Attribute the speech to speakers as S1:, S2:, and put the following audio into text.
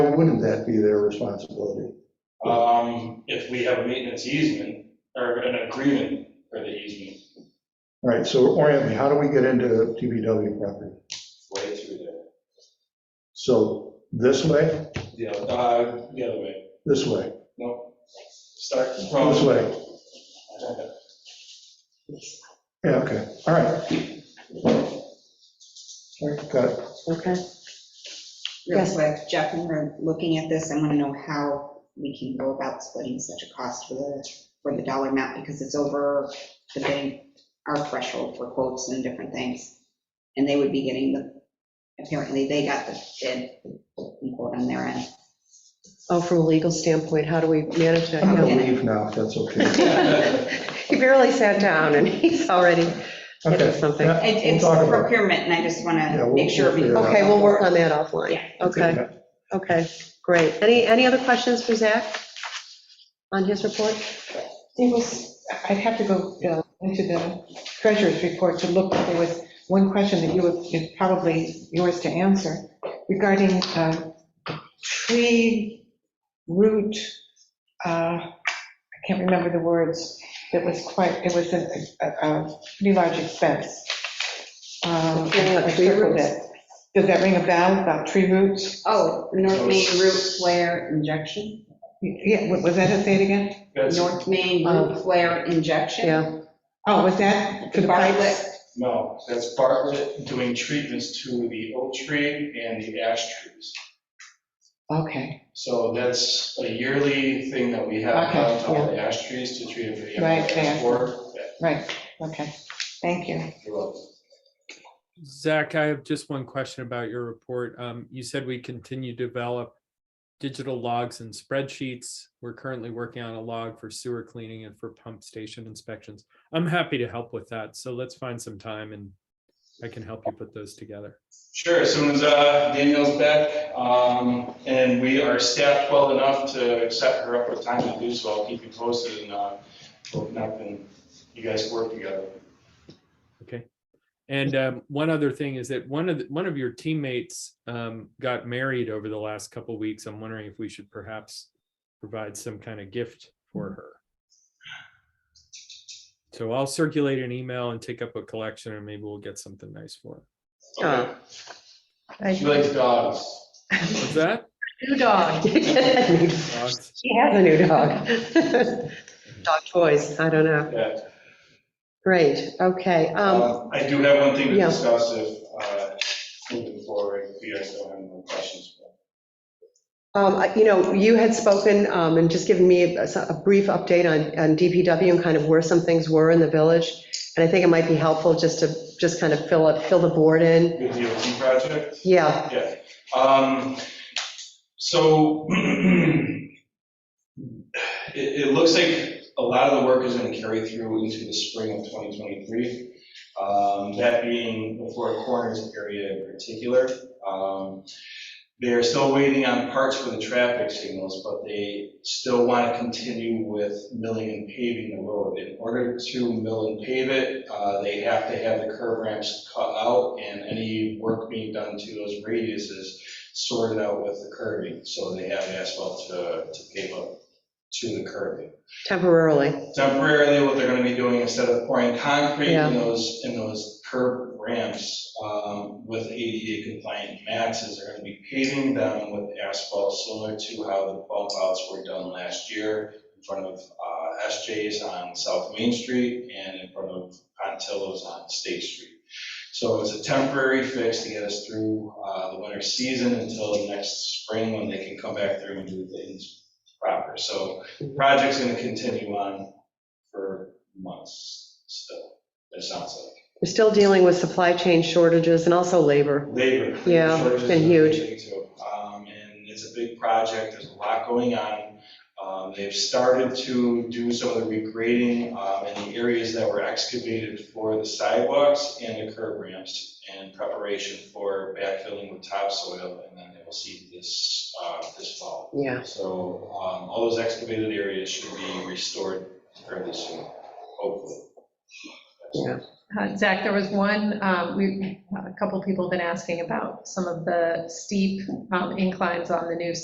S1: wouldn't that be their responsibility?
S2: Um, if we have a maintenance easement or an agreement for the easement
S1: All right, so orient me, how do we get into TBW property?
S2: way through there,
S1: So this way,
S2: the other, uh, the other way,
S1: this way,
S2: no, start from.
S1: this way, yeah, okay, all right. All right, Got it,
S3: Okay.
S4: Real
S3: Yes.
S4: quick, Jeff, when we're looking at this, I want to know how we can go about splitting such a cost for the, for the dollar amount, because it's over the bank, our threshold for quotes and different things. And they would be getting the, apparently they got the bid, and quote on their end.
S3: Oh, from a legal standpoint, how do we manage that?
S1: I'm gonna
S3: Yeah.
S1: leave now, if that's okay.
S3: He barely sat down and he's already getting
S1: Okay,
S3: something.
S1: yeah,
S4: It-
S1: we'll
S4: It's
S1: talk about it.
S4: procurement, and I just want
S1: Yeah,
S4: to
S1: we'll-
S4: make sure.
S1: we'll
S4: we-
S1: figure it
S3: Okay, we'll work on that offline. Okay,
S1: Yeah.
S3: okay, great. Any, any other questions for Zach on his report?
S5: There was, I'd have to go uh, into the treasurer's report to look, but there was one question that you would, it's probably yours to answer regarding uh, tree root, uh, I can't remember the words, it was quite, it was a, a- a pretty large expense. Um,
S3: Yeah, what,
S5: I
S3: tree
S5: circled
S3: roots?
S5: it. Does that ring a bell about tree roots?
S4: Oh, North Main Root Flare Injection?
S5: Yeah, wa- was that it, say it again?
S2: That's,
S4: North Main Root Flare
S3: Uh,
S4: Injection?
S3: Yeah,
S5: Oh, was that for the
S4: Bartlett.
S5: pipes?
S2: no, that's Bartlett doing treatments to the oak tree and the ash trees.
S5: Okay,
S2: So that's a yearly thing that we have
S5: Okay,
S2: done to all the ash trees to treat them for the.
S5: Right, yeah.
S2: for- yeah,
S5: right, okay, thank you.
S2: you're welcome.
S6: Zach, I have just one question about your report. Um, you said we continue to develop digital logs and spreadsheets. We're currently working on a log for sewer cleaning and for pump station inspections. I'm happy to help with that, so let's find some time and I can help you put those together.
S2: Sure, as soon as uh, Danielle's back, um, and we are staffed well enough to set her up with time to do so, I'll keep you posted and uh, open up and you guys work together.
S6: Okay. And um, one other thing is that one of, the- one of your teammates um, got married over the last couple weeks. I'm wondering if we should perhaps provide some kind of gift for her. So I'll circulate an email and take up a collection and maybe we'll get something nice for her.
S2: Okay.
S3: Oh. I-
S2: She likes dogs.
S6: What's that?
S3: New dog. She has
S6: Dogs?
S3: a new dog. Dog toys, I don't know.
S2: Yeah.
S3: Great, okay. um,
S2: Um, I do have one thing to
S3: yeah.
S2: discuss if, uh, moving forward, if you guys don't have any more questions.
S3: Um, I- You know, you had spoken um, and just given me a a brief update on on DPW and kind of where some things were in the village. And I think it might be helpful just to, just kind of fill up, fill the board in.
S2: The DOT project?
S3: Yeah,
S2: Yeah. Um, So it, it looks like a lot of the work is going to carry through into the spring of 2023. um, That being the Four Corners area in particular. Um, They are still waiting on parts for the traffic signals, but they still want to continue with milling and paving the road. In order to mill and pave it, uh, they have to have the curb ramps cut out and any work being done to those radiuses sorted out with the curving. So they have asphalt to, to pave up to the curving
S3: temporarily.
S2: temporarily what they're gonna be doing, instead of pouring concrete
S3: Yeah.
S2: in those, in those curb ramps um, with ADA compliant mats, is they're gonna be paving them with asphalt, similar to how the bump outs were done last year in front of uh, SJ's on South Main Street and in front of Pontillo's on State Street. So it's a temporary fix to get us through uh, the winter season until next spring when they can come back through and do things proper. So the project's gonna continue on for months still, it sounds like.
S3: We're still dealing with supply chain shortages and also labor.
S2: Labor.
S3: Yeah,
S2: shortages
S3: been
S2: is a
S3: huge.
S2: big thing, too. Um, And it's a big project, there's a lot going on. Um, They've started to do some of the regrading um, in the areas that were excavated for the sidewalks and the curb ramps in preparation for backfilling with topsoil, and then they will see this, uh, this fall.
S3: Yeah,
S2: So um, all those excavated areas should be restored fairly soon, hopefully.
S3: yeah.
S7: Uh, Zach, there was one, um, we, a couple of people have been asking about some of the steep um, inclines on the new